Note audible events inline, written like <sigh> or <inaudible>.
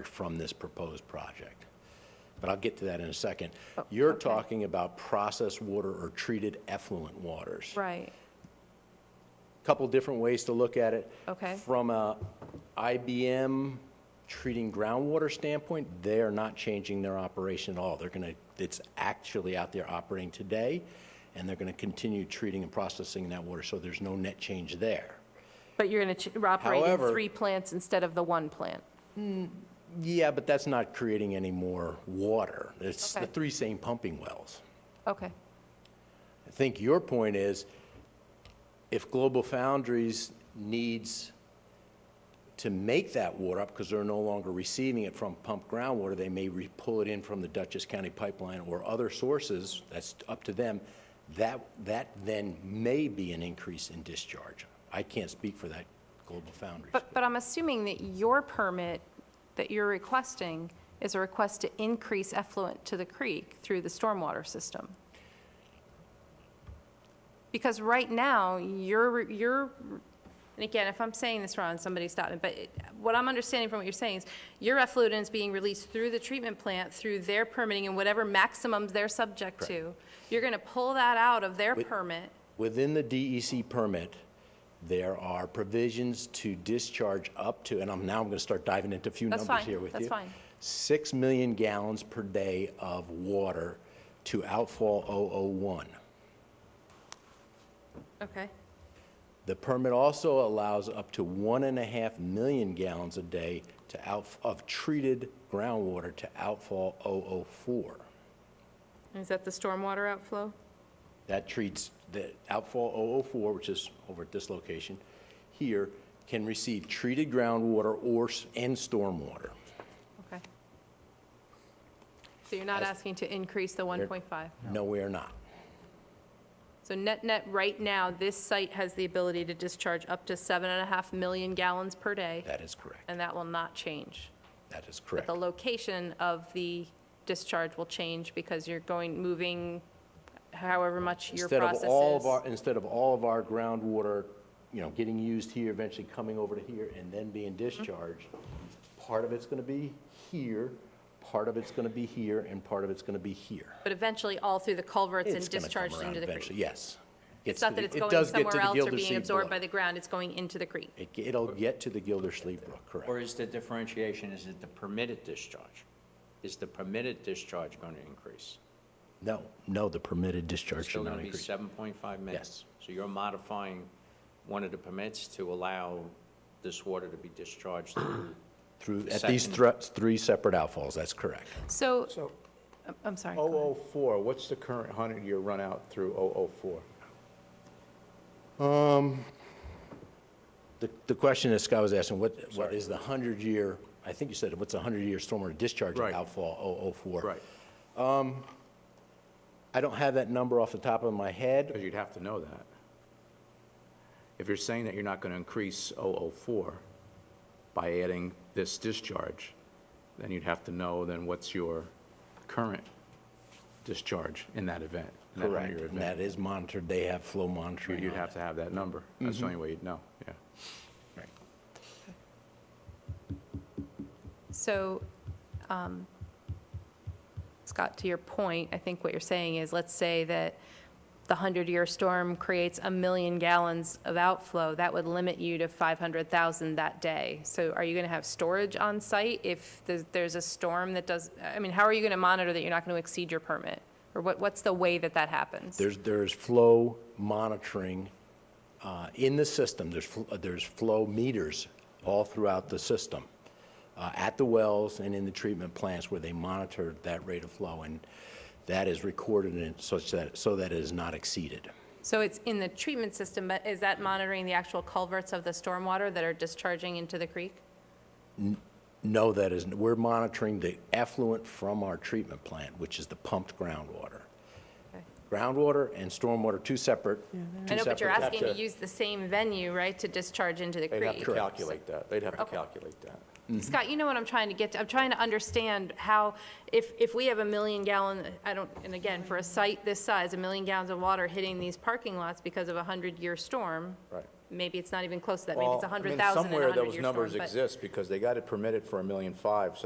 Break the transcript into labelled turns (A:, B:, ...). A: discharge from this proposed project. But I'll get to that in a second.
B: Oh,
A: You're talking about processed water or treated effluent waters.
B: Right,
A: Couple different ways to look at it.
B: Okay.
A: From a IBM treating groundwater standpoint, they are not changing their operation at all. They're going to, it's actually out there operating today, and they're going to continue treating and processing that water, so there's no net change there.
B: but you're going to operate in
A: However-
B: three plants instead of the one plant.
A: Yeah, but that's not creating any more water. It's the
B: Okay.
A: three same pumping wells.
B: Okay,
A: I think your point is, if Global Foundries needs to make that water up, because they're no longer receiving it from pumped groundwater, they may re- pull it in from the Dutchess County Pipeline or other sources, that's up to them, that, that then may be an increase in discharge. I can't speak for that Global Foundries.
B: but, but I'm assuming that your permit that you're requesting is a request to increase effluent to the creek through the stormwater system. Because right now, you're, you're, and again, if I'm saying this wrong, somebody stop me, but it- what I'm understanding from what you're saying is your effluent is being released through the treatment plant, through their permitting and whatever maximums they're subject to. You're going to pull that out of their
A: Wait.
B: permit.
A: Within the DEC permit, there are provisions to discharge up to, and I'm, now I'm going to start diving into a few
B: That's
A: numbers
B: fine.
A: here with you.
B: That's fine.
A: 6 million gallons per day of water to outfall 001.
B: Okay.
A: The permit also allows up to 1.5 million gallons a day to out, of treated groundwater to outfall 004.
B: Is that the stormwater outflow?
A: That treats the outfall 004, which is over at this location here, can receive treated groundwater or, s- and stormwater.
B: Okay. So you're not asking to increase the 1.5?
A: No, we are not.
B: So net-net, right now, this site has the ability to discharge up to 7.5 million gallons per day,
A: That is correct.
B: and that will not change.
A: That is
B: But
A: correct.
B: the location of the discharge will change because you're going, moving however much your
A: Instead of
B: process
A: all of
B: is.
A: our, instead of all of our groundwater, you know, getting used here, eventually coming over to here and then being
B: Mm-hmm.
A: discharged, part of it's going to be here, part of it's going to be here, and part of it's going to be here.
B: But eventually, all through the culverts and
A: It's gonna come
B: discharged
A: around
B: into the
A: eventually,
B: creek.
A: Yes. Gets
B: It's
A: to
B: not
A: the-
B: that it's
A: it
B: going
A: does get to
B: somewhere
A: the
B: else or
A: Gilder
B: being
A: Sea
B: absorbed
A: Brook.
B: by the ground, it's going into the creek.
A: It, it'll get to the Gildersleeve Brook,
C: Or
A: correct.
C: is the differentiation, is it the permitted discharge? Is the permitted discharge going to increase?
A: No, no, the permitted discharge should
C: Still
A: not
C: going to be
A: increase.
C: 7.5 minutes? So you're modifying one of the permits to allow this water to be discharged
D: <clears throat>
C: through,
A: Through, at these
C: Second.
A: thre- three separate outfalls, that's correct.
B: So,
D: So
B: I'm- I'm sorry.
A: Oh,
B: go ahead.
D: 004, what's the current 100-year runout through 004?
A: The, the question that Scott was asking, what, what is the 100-year, I think you said, what's a 100-year stormwater discharge
D: Right.
A: outfall 004?
D: Right,
A: I don't have that number off the top of my head.
D: because you'd have to know that. If you're saying that you're not going to increase 004 by adding this discharge, then you'd have to know then what's your current discharge in that event, in that 100-year
A: And that
D: event.
A: is monitored, they have flow monitoring.
D: You'd
A: on
D: have to have that Mm-hmm. number. That's the only way you'd know, yeah.
A: it. Right.
B: So, um, Scott, to your point, I think what you're saying is, let's say that the 100-year storm creates a million gallons of outflow, that would limit you to 500,000 that day. So are you going to have storage on site if there's- there's a storm that does, I mean, how are you going to monitor that you're not going to exceed your permit? Or what, what's the way that that happens?
A: There's, there's flow monitoring uh, in the system. There's, fl- uh, there's flow meters all throughout the system, uh, at the wells and in the treatment plants where they monitor that rate of flow, and that is recorded in such that, so that it is not exceeded.
B: So it's in the treatment system, but is that monitoring the actual culverts of the stormwater that are discharging into the creek?
A: No, that isn't. We're monitoring the effluent from our treatment plant, which is the pumped groundwater.
B: Okay.
A: Groundwater and stormwater, two separate,
B: I
A: two
B: know, but you're
A: separate
B: asking to use the same venue, right, to discharge into the
D: They'd have
B: creek?
D: to calculate that. They'd have to
B: Okay.
D: calculate that.
B: Scott, you know what I'm trying to get to, I'm trying to understand how, if, if we have a million gallon, I don't, and again, for a site this size, a million gallons of water hitting these parking lots because of a hundred-year storm.
D: Right.
B: Maybe it's not even close to that, maybe it's a
D: Well, I mean,
B: hundred thousand in a
D: Somewhere
B: hundred-year storm.
D: those numbers
B: but-
D: exist, because they got it permitted for a million five, so